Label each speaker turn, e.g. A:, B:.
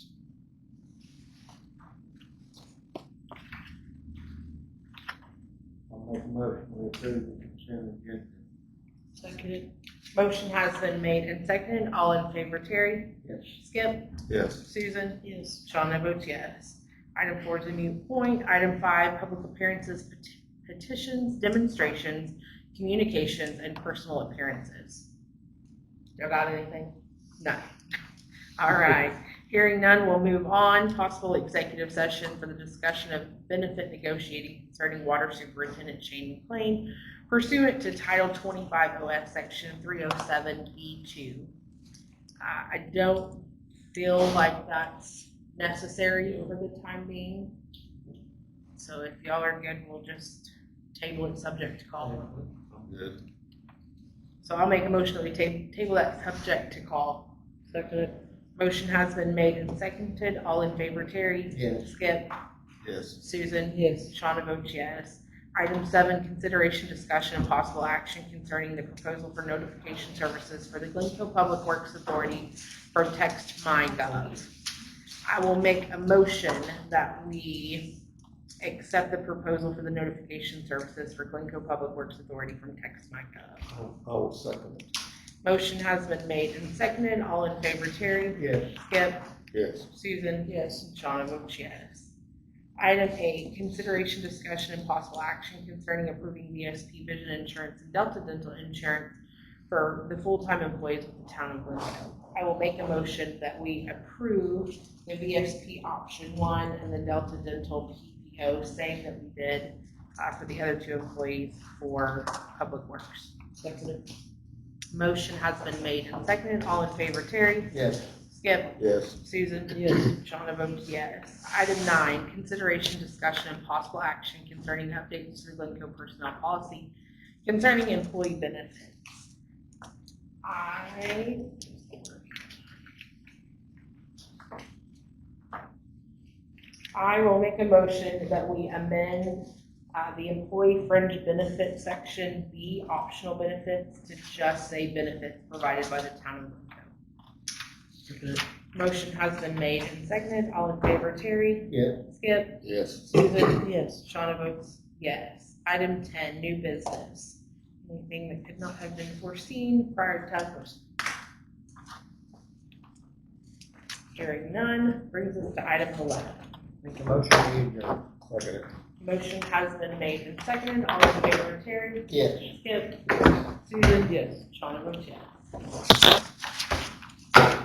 A: motion we approve the consent agenda.
B: Seconded.
C: Motion has been made and seconded. All in favor, Terry?
A: Yes.
C: Skip?
D: Yes.
C: Susan?
B: Yes.
C: Shawna votes yes. Item four is a mute point. Item five, public appearances, pet- petitions, demonstrations, communications, and personal appearances. Y'all got anything? No. All right. Hearing none, we'll move on. Possible executive session for the discussion of benefit negotiating concerning water superintendent Shane McLean pursuant to Title 25 OF Section 307B2. Uh, I don't feel like that's necessary for the time being. So if y'all are good, we'll just table it subject to call.
D: Good.
C: So I'll make a motion that we ta- table that subject to call.
B: Seconded.
C: Motion has been made and seconded. All in favor, Terry?
A: Yes.
C: Skip?
D: Yes.
C: Susan?
B: Yes.
C: Shawna votes yes. Item seven, consideration, discussion, and possible action concerning the proposal for notification services for the Glencoe Public Works Authority from text my gov. I will make a motion that we accept the proposal for the notification services for Glencoe Public Works Authority from text my gov.
A: I will second it.
C: Motion has been made and seconded. All in favor, Terry?
A: Yes.
C: Skip?
D: Yes.
C: Susan?
B: Yes.
C: Shawna votes yes. Item eight, consideration, discussion, and possible action concerning approving VSP vision insurance and Delta dental insurance for the full-time employees of the town of Glencoe. I will make a motion that we approve the VSP option one and the Delta dental PPO, same that we did uh, for the other two employees for Public Works.
B: Seconded.
C: Motion has been made and seconded. All in favor, Terry?
A: Yes.
C: Skip?
D: Yes.
C: Susan?
B: Yes.
C: Shawna votes yes. Item nine, consideration, discussion, and possible action concerning updates to the Glencoe personnel policy concerning employee benefits. I. I will make a motion that we amend, uh, the employee fringe benefit section B, optional benefits, to just say benefits provided by the town of Glencoe.
B: Seconded.
C: Motion has been made and seconded. All in favor, Terry?
A: Yes.
C: Skip?
D: Yes.
C: Susan?
B: Yes.
C: Shawna votes yes. Item ten, new business. Anything that could not have been foreseen prior to task force? Hearing none, brings us to item eleven.
A: Make a motion we adjourn. Second it.
C: Motion has been made and seconded. All in favor, Terry?
A: Yes.
C: Skip? Susan?
B: Yes.
C: Shawna votes yes.